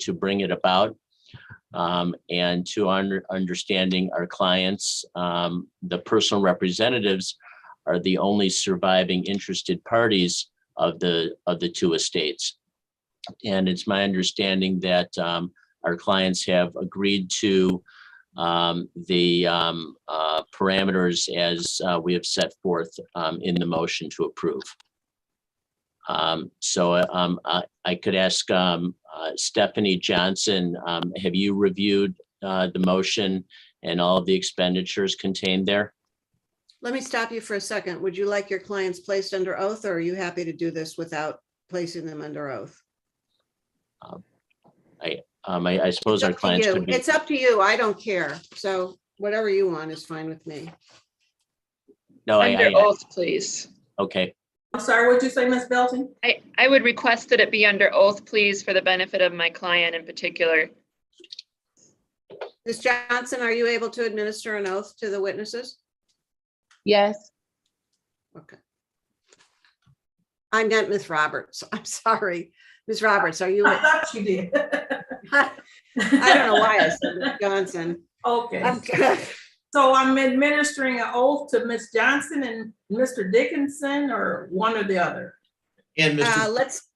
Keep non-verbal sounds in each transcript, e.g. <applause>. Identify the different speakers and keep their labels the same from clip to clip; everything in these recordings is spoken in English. Speaker 1: to bring it about. Um, and to our understanding our clients, um, the personal representatives are the only surviving interested parties of the, of the two estates. And it's my understanding that, um, our clients have agreed to, um, the, um, uh, parameters as, uh, we have set forth, um, in the motion to approve. Um, so, uh, um, I, I could ask, um, uh, Stephanie Johnson, um, have you reviewed, uh, the motion and all of the expenditures contained there?
Speaker 2: Let me stop you for a second. Would you like your clients placed under oath or are you happy to do this without placing them under oath?
Speaker 1: Um, I, I suppose our
Speaker 2: It's up to
Speaker 1: clients
Speaker 2: you.
Speaker 1: could be,
Speaker 2: It's up to you. I don't care. So whatever you want is fine with me.
Speaker 1: no, Oh, I,
Speaker 3: Under
Speaker 1: I,
Speaker 3: oath, please.
Speaker 1: okay,
Speaker 4: I'm sorry, what'd you say, Ms. Belton?
Speaker 3: I, I would request that it be under oath, please, for the benefit of my client in particular.
Speaker 2: Ms. Johnson, are you able to administer an oath to the witnesses?
Speaker 5: Yes,
Speaker 2: Okay. I'm not Ms. Roberts. <laughs> I'm sorry. Ms. Roberts, are you? <laughs>
Speaker 4: I
Speaker 2: I
Speaker 4: thought you did. <laughs>
Speaker 2: don't know why I said Ms. Johnson. I'm-
Speaker 4: Okay, so I'm administering an oath to Ms. Johnson and Mr. Dickinson or one or the other.
Speaker 6: And
Speaker 2: Uh,
Speaker 6: Mr.
Speaker 2: Let's,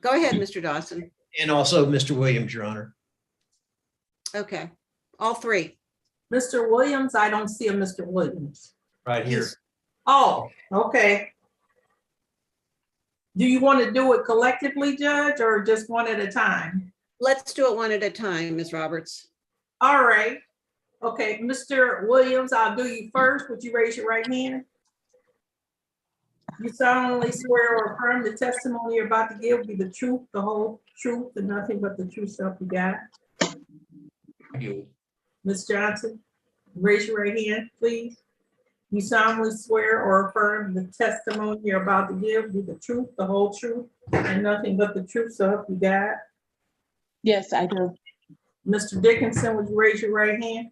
Speaker 2: go ahead, Mr. Dawson.
Speaker 6: and also Mr. Williams, Your Honor.
Speaker 2: Okay, all three.
Speaker 4: Mr. Williams, I don't see a Mr. Williams.
Speaker 6: Right here.
Speaker 4: Oh, okay. Do you want to do it collectively, Judge, or just one at a time?
Speaker 2: Let's do it one at a time, Ms. Roberts.
Speaker 4: All right. Okay, Mr. Williams, I'll do you first. Would you raise your right hand? You solemnly swear or affirm the testimony you're about to give be the truth, the whole truth, and nothing but the true self you got. Ms. Johnson, raise your right hand, please. You solemnly swear or affirm the testimony you're about to give be the truth, the whole truth, and nothing but the truth, so help you God.
Speaker 5: yes, I do.
Speaker 4: Mr. Dickinson, would you raise your right hand?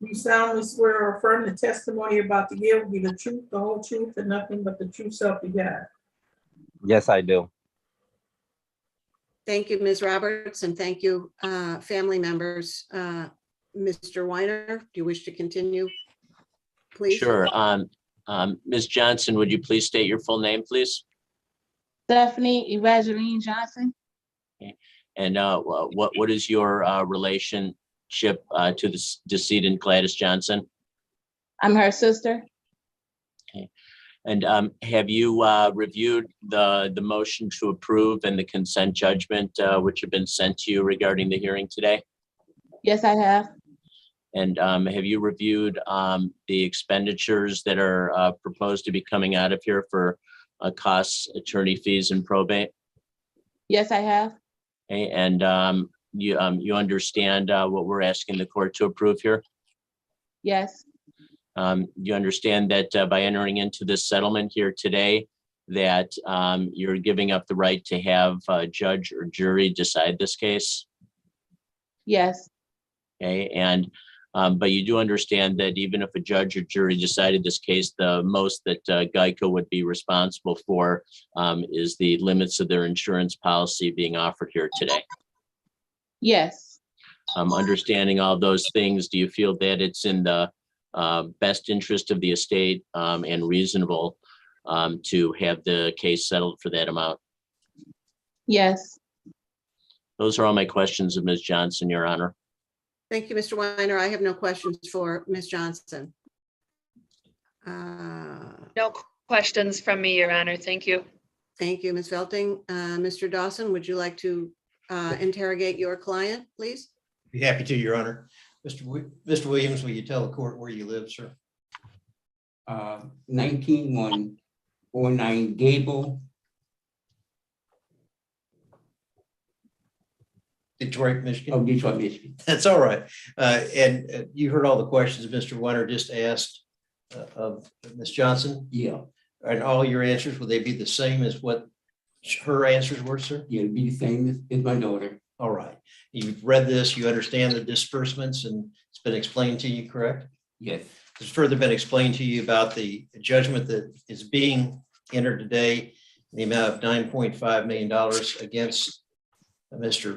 Speaker 4: You solemnly swear or affirm the testimony you're about to give be the truth, the whole truth, and nothing but the truth, so help you God.
Speaker 7: Yes, I do.
Speaker 2: Thank you, Ms. Roberts, and thank you, uh, family members. Uh, Mr. Weiner, do you wish to continue? Please.
Speaker 1: sure. Um, um, Ms. Johnson, would you please state your full name, please?
Speaker 5: Stephanie Evangeline Johnson,
Speaker 1: And, uh, wha- what, what is your, uh, relationship, uh, to the s- decedent Gladys Johnson?
Speaker 5: I'm her sister.
Speaker 1: And, um, have you, uh, reviewed the, the motion to approve and the consent judgment, uh, which have been sent to you regarding the hearing today?
Speaker 5: Yes, I have.
Speaker 1: And um, have you reviewed um, the expenditures that are uh, proposed to be coming out of here for uh, costs, attorney fees and probate?
Speaker 5: Yes, I have.
Speaker 1: A- And um, you, um, you understand uh, what we're asking the court to approve here?
Speaker 5: Yes,
Speaker 1: Um, You understand that uh, by entering into this settlement here today, that um, you're giving up the right to have a judge or jury decide this case?
Speaker 5: yes,
Speaker 1: Okay, and, um, but you do understand that even if a judge or jury decided this case, the most that uh, Geico would be responsible for um, is the limits of their insurance policy being offered here today.
Speaker 5: yes,
Speaker 1: Um, understanding all those things, do you feel that it's in the uh, best interest of the estate um, and reasonable um, to have the case settled for that amount?
Speaker 5: yes,
Speaker 1: Those are all my questions of Ms. Johnson, Your Honor.
Speaker 2: Thank you, Mr. Weiner. I have no questions for Ms. Johnson. Uh,
Speaker 3: No questions from me, Your Honor. Thank you.
Speaker 2: Thank you, Ms. Felting. Uh, Mr. Dawson, would you like to uh, interrogate your client, please?
Speaker 6: Be happy to, Your Honor. Mr. Wi- Mr. Williams, will you tell the court where you live, sir?
Speaker 8: uh, nineteen one oh nine Gable,
Speaker 6: Detroit, Michigan?
Speaker 8: of Detroit, Michigan.
Speaker 6: <laughs> That's all right. Uh, And uh, you heard all the questions Mr. Weiner just asked uh, of Ms. Johnson.
Speaker 8: Yeah,
Speaker 6: And all your answers, will they be the same as what her answers were, sir?
Speaker 8: yeah, it'd be the same as, as my daughter.
Speaker 6: All right. You've read this, you understand the disbursements, and it's been explained to you, correct?
Speaker 8: Yes,
Speaker 6: has further been explained to you about the judgment that is being entered today, in the amount of $9.5 million against Mr.